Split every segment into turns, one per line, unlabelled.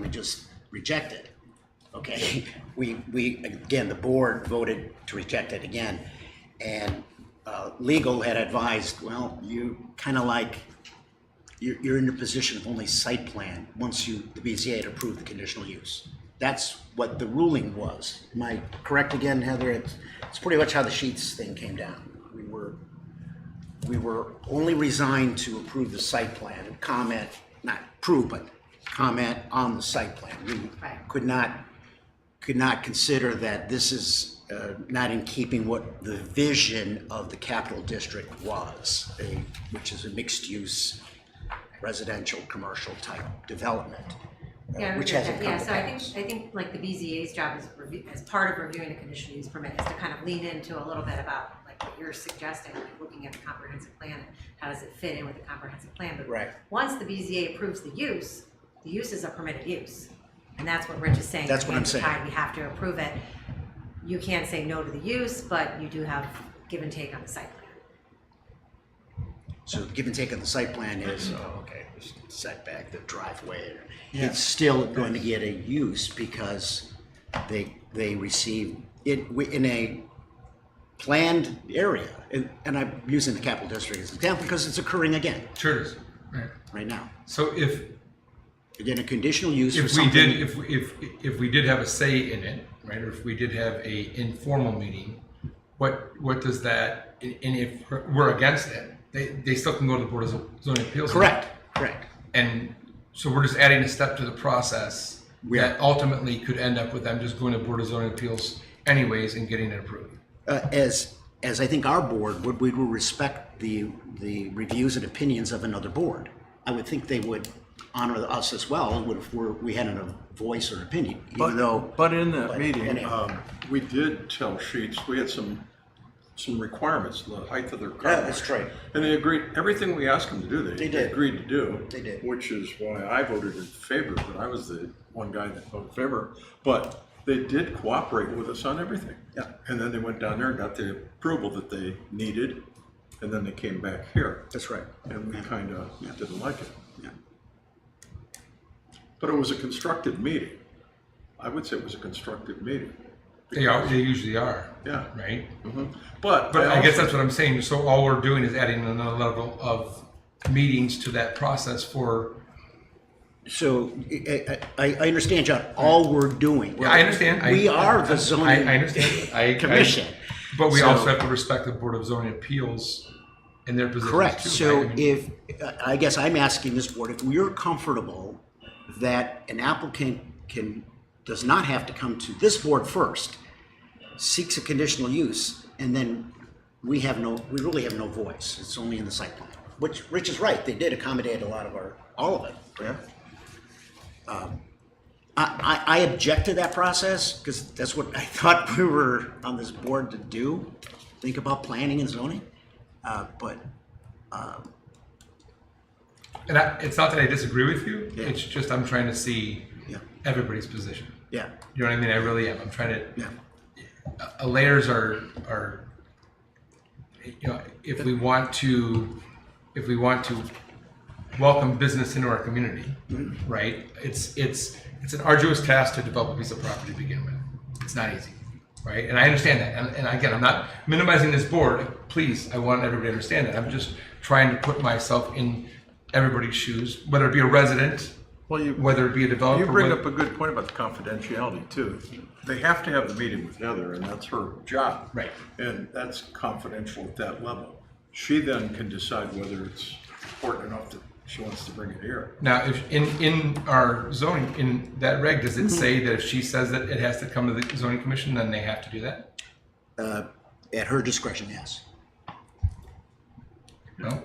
could just reject it. Okay, we, we, again, the board voted to reject it again. And uh, legal had advised, well, you kind of like, you're, you're in the position of only site plan once you, the BZA had approved the conditional use. That's what the ruling was. Am I correct again, Heather? It's, it's pretty much how the sheets thing came down. We were, we were only resigned to approve the site plan, comment, not approve, but comment on the site plan. We
Right.
could not, could not consider that this is uh, not in keeping what the vision of the capital district was, a- which is a mixed-use residential, commercial type development, uh,
Yeah, I
which
agree with
hasn't
that.
come
Yeah,
to
so I
pass.
think, I think like the BZA's job is, review- as part of reviewing the conditional use permit, is to kind of lean into a little bit about like what you're suggesting, like looking at the comprehensive plan, and how does it fit in with the comprehensive plan? But
Right.
Once the BZA approves the use, the use is a permitted use. And that's what Rich is saying.
That's what I'm
at the
saying.
time, We have to approve it. You can't say no to the use, but you do have give and take on the site plan.
So give and take on the site plan is, oh, okay, setback, the driveway. It's still going to get a use because they, they receive it wi- in a planned area. And, and I'm using the capital district as an example because it's occurring again
Sure it is. Right.
right now.
So if
Again, a conditional use for
if we
something.
did if if if we did have a say in it, right, or if we did have a informal meeting, what what does that? And and if we're against it, they they still can go to the board of zoning appeals.
Correct, correct.
And so we're just adding a step to the process
We are.
that ultimately could end up with them just going to board of zoning appeals anyways and getting it approved.
uh, as as I think our board would, we will respect the the reviews and opinions of another board. I would think they would honor us as well, and would if we're, we had a voice or an opinion, even though.
But in that
but
meeting,
anyhow.
um, we did tell Sheets, we had some, some requirements, the height of their car.
Yeah, that's
wash.
right.
And they agreed, everything we asked them to do, they.
They did.
Agreed to do.
They did.
Which is why I voted in favor, but I was the one guy that voted in favor. But they did cooperate with us on everything.
Yeah.
And then they went down there and got the approval that they needed, and then they came back here,
That's right.
and we kind of didn't like it.
Yeah.
But it was a constructive meeting. I would say it was a constructive meeting.
They are they usually are.
Yeah.
Right.
But,
But I guess
also-
that's what I'm saying. So all we're doing is adding another level of meetings to that process for
So I, I, I understand, John. All we're doing.
Yeah, I understand. I-
We are the
I,
zoning.
I understand. I, I-
Commission.
but we
So-
also have to respect the Board of Zoning Appeals and their position.
Correct.
Too,
So
right? I mean,
if, I- I guess I'm asking this board, if we're comfortable that an applicant can, does not have to come to this board first, seeks a conditional use, and then we have no, we really have no voice. It's only in the site plan. Which, Rich is right, they did accommodate a lot of our, all of it. Yeah. I, I I object to that process because that's what I thought we were on this board to do, think about planning and zoning. Uh, But
and I, it's not that I disagree with you.
Yeah.
It's just I'm trying to see
Yeah.
everybody's position.
Yeah,
You know what I mean? I really am. I'm trying to.
yeah,
uh, layers are are you know if we want to if we want to welcome business into our community right it's it's it's an arduous task to develop a piece of property to begin with it's not easy right and i understand that and, and again i'm not minimizing this board please i want everybody to understand that i'm just trying to put myself in everybody's shoes whether it be a resident
Well, you,
whether it be a developer
you bring
whether-
up a good point about the confidentiality too. They have to have the meeting with Heather and that's her job.
Right.
And that's confidential at that level. She then can decide whether it's important enough that she wants to bring it here.
Now, if in in our zoning in that reg, does it say that if she says that it has to come to the zoning commission, then they have to do that?
Uh, at her discretion, yes.
No.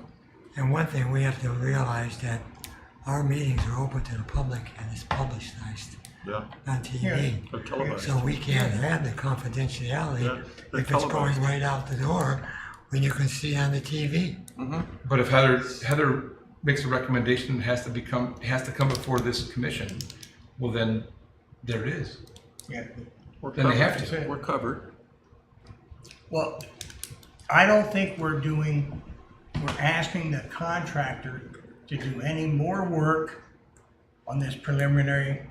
And one thing we have to realize that our meetings are open to the public and it's publicized
Yeah.
on TV.
They're televised.
So we can't have the
Yeah,
confidentiality
they're
if it's going
televised.
right out the door when you can see on the TV.
But if Heather Heather makes a recommendation, it has to become it has to come before this commission. Well, then there it is.
Yeah.
We're
Then they have
covered.
to.
We're covered.
Well, I don't think we're doing, we're asking the contractor to do any more work on this preliminary